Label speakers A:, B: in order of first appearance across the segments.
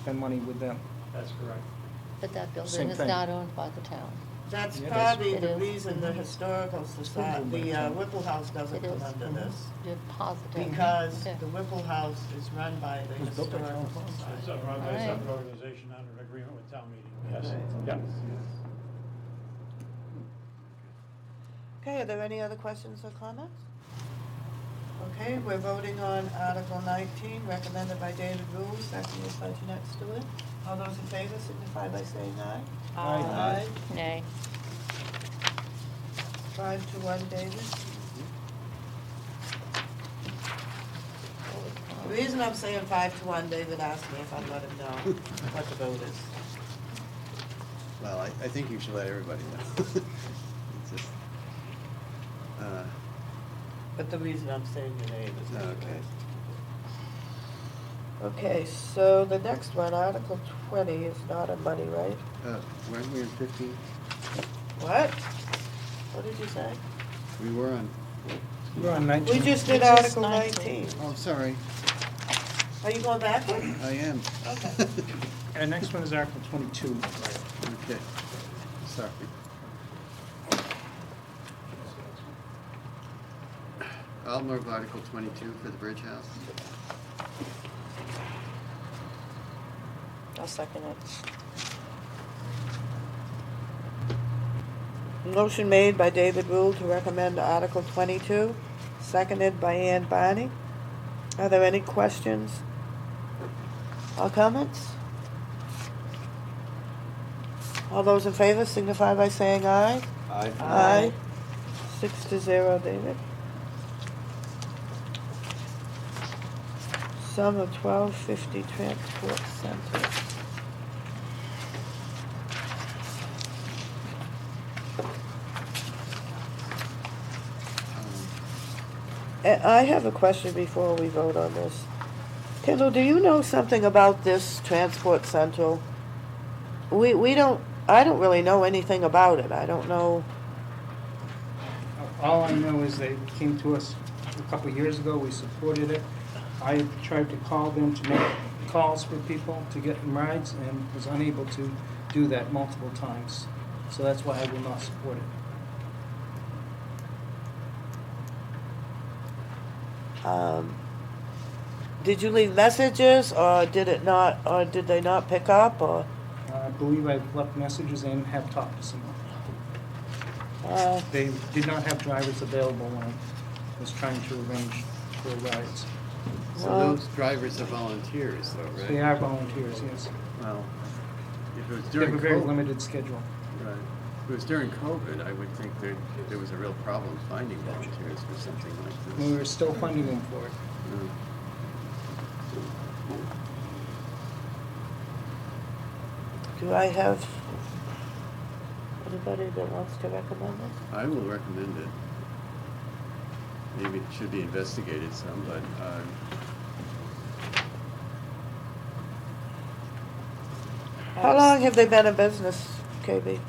A: spend money with them.
B: That's correct.
C: But that
A: Same
C: building is
A: thing.
C: not owned by the town.
D: That's
A: Yeah, that's-
D: probably
C: It
D: the
C: is.
D: reason the historical society, the uh, Whipple House doesn't
C: It
D: come
C: is. Mm-hmm.
D: under this.
C: You're positive.
D: Because
C: Yeah.
D: the Whipple House is run by the
A: It was built by
D: historical
A: Charles Fox.
B: It's
D: society.
B: a run by
C: Alright.
B: separate organization under an agreement with town meeting, yes,
D: Right.
B: yeah.
D: Okay, are there any other questions or comments? Okay, we're voting on Article nineteen, recommended by David Rule, seconded by Jeanette Stewart. All those in favor signify by saying aye.
A: Aye. Aye.
C: Nay.
D: Five to one, David. The reason I'm saying five to one, David asked me if I'd let him know what the vote is.
E: Well, I, I think you should let everybody know. It's just, uh,
D: But the reason I'm saying your name is.
E: Okay.
D: Okay, so the next one, Article twenty, is not a money, right?
E: uh, Weren't we on fifteen?
D: What? What did you say?
E: We were on,
A: You're on nineteen.
D: We just did
C: It's just
D: Article
C: 19.
D: nineteen.
E: oh, sorry,
D: Are you going backward?
E: I am.
D: Okay.
A: Our next one is Article twenty-two.
E: Okay, sorry. I'll move Article twenty-two for the Bridge House.
D: I'll second it. Motion made by David Rule to recommend Article twenty-two, seconded by Ann Barney. Are there any questions or comments? All those in favor signify by saying aye.
E: Aye.
D: Aye. Six to zero, David. Sum of twelve fifty transport center. A- Eh, I have a question before we vote on this. Kendall, do you know something about this transport central? We, we don't, I don't really know anything about it. I don't know.
A: All I know is they came to us a couple of years ago, we supported it. I tried to call them to make calls for people to get them rides and was unable to do that multiple times. So that's why I will not support it.
D: Um, did you leave messages or did it not, or did they not pick up or?
A: Uh, I believe I've left messages and have talked to someone.
D: Uh,
A: They did not have drivers available when I was trying to arrange for rides.
E: So
D: Well-
E: those drivers are volunteers though, right?
A: They are volunteers, yes.
E: Well, if it
A: They
E: was
A: have
E: during
A: a very
E: COVID-
A: limited schedule.
E: Right. If it was during COVID, I would think that there was a real problem finding volunteers for something like
A: We
E: this.
A: were still funding them for it.
E: Yeah.
D: do I have anybody that wants to recommend it?
E: I will recommend it. Maybe it should be investigated some, but, um,
D: How long have they been in business, KB?
A: Um,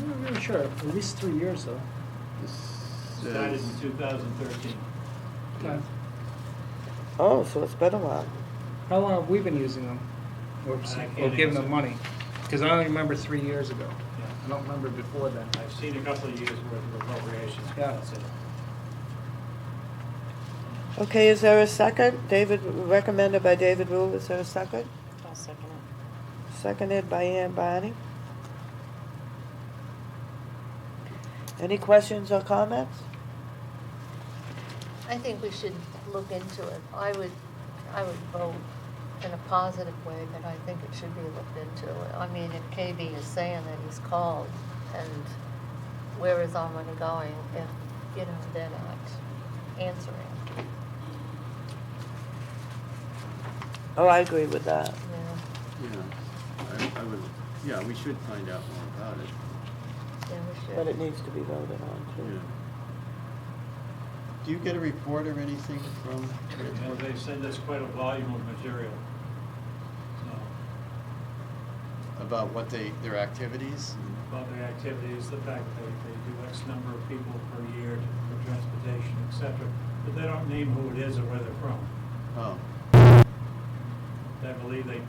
A: I'm not really sure. At least three years, though.
E: this
B: Started
E: says,
B: in two thousand thirteen.
D: Oh, so it's been a while.
A: How long have we been using them? Or,
B: I can't
A: or giving
B: answer.
A: them money? Because I only remember three years ago. I don't remember before then.
B: I've seen a couple of years worth of appropriations. but
A: Yeah.
B: that's it.
D: Okay, is there a second? David, recommended by David Rule, is there a second?
C: I'll second it.
D: Seconded by Ann Barney. Any questions or comments?
C: I think we should look into it. I would, I would vote in a positive way, but I think it should be looked into. I mean, if KB is saying that he's called and where is our money going if, you know, they're not answering.
D: Oh, I agree with that.
C: you know?
E: yeah, I, I would, yeah, we should find out more about it,
C: Yeah, we should.
D: But it needs to be voted on,
E: yeah.
D: too.
E: Do you get a report or anything from
B: You know,
E: Transport?
B: they send us quite a volume of material. So,
E: About what they, their activities?
B: about the activities, the fact that they, they do X number of people per year for transportation, et cetera, but they don't name who it is or where they're from.
E: Oh,
B: I believe they